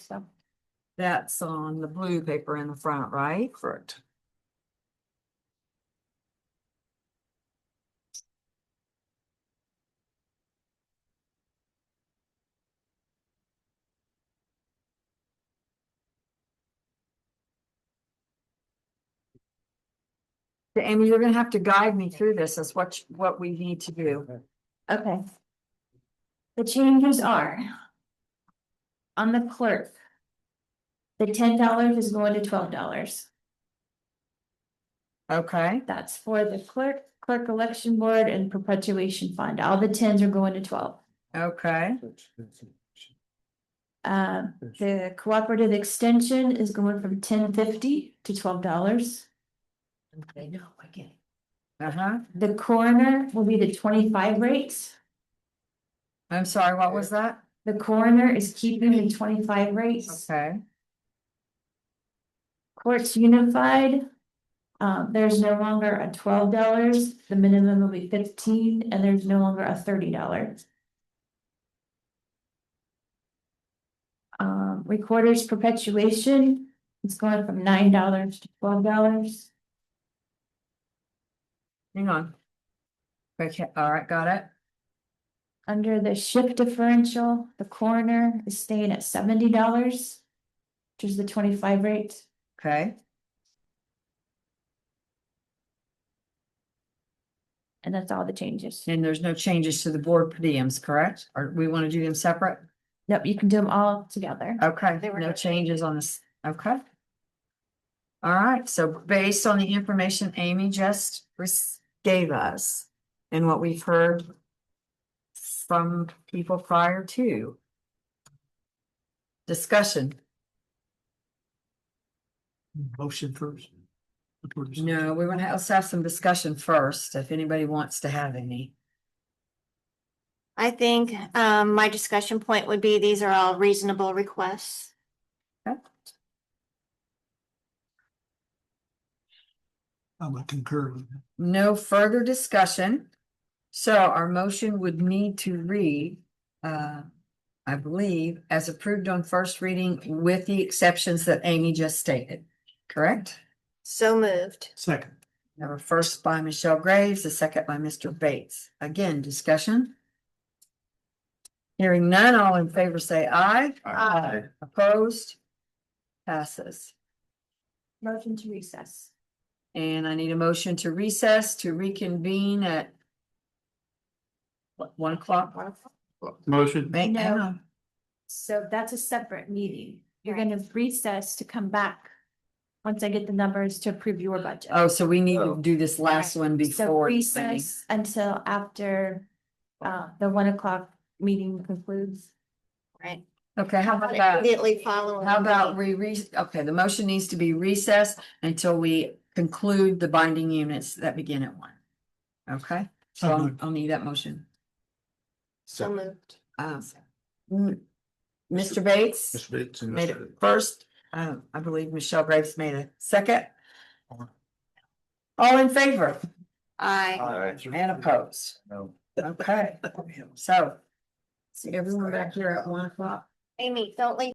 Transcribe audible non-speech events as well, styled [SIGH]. stuff. That's on the blue paper in the front, right? Correct. Amy, you're gonna have to guide me through this. That's what, you- what we need to do. Okay. The changes are. On the clerk. The ten dollars is going to twelve dollars. Okay, That's for the clerk, clerk election board and perpetuation fund. All the tens are going to twelve. okay, Uh, the cooperative extension is going from ten fifty to twelve dollars. Okay, no, I get it. uh-huh. The coroner will be the twenty-five rates. I'm sorry, what was that? The coroner is keeping the twenty-five rates. Okay, Courts unified. Uh, there's no longer a twelve dollars, the minimum will be fifteen, and there's no longer a thirty dollars. Um, recorders perpetuation, it's going from nine dollars to twelve dollars. hang on. Okay, all right, got it. Under the shift differential, the coroner is staying at seventy dollars. Which is the twenty-five rate. Okay, And that's all the changes. and there's no changes to the board per diems, correct? Or we want to do them separate? Nope, you can do them all together. Okay, They were no good. changes on this, okay. All right, so based on the information Amy just res- gave us and what we've heard from people prior to. Discussion, Motion first. no, we want to, let's have some discussion first, if anybody wants to have any. I think um my discussion point would be these are all reasonable requests. I'm gonna concur with that. No further discussion. So our motion would need to read, uh, I believe, as approved on first reading with the exceptions that Amy just stated, correct? So moved. Second, We have a first by Michelle Graves, a second by Mr. Bates. Again, discussion. Hearing none, all in favor say aye. Uh, Aye. Opposed? Passes. Motion to recess. And I need a motion to recess to reconvene at what, one o'clock? motion. Wait, hang No. on. So that's a separate meeting. You're gonna recess to come back. Once I get the numbers to approve your budget. Oh, so we need to do this last one So before. it's finished. recess until after uh the one o'clock meeting concludes. Right. Okay, how about that? Immediately following. How about we re, okay, the motion needs to be recessed until we conclude the binding units that begin at one. Okay, so I'll- I'll need that motion. So moved. Um, m- Mr. Bates made it first, um, I believe Michelle Graves made a second. All in favor Uh, I and opposed? No. [LAUGHS] Okay, so. See everyone back here at one o'clock? Amy, don't leave.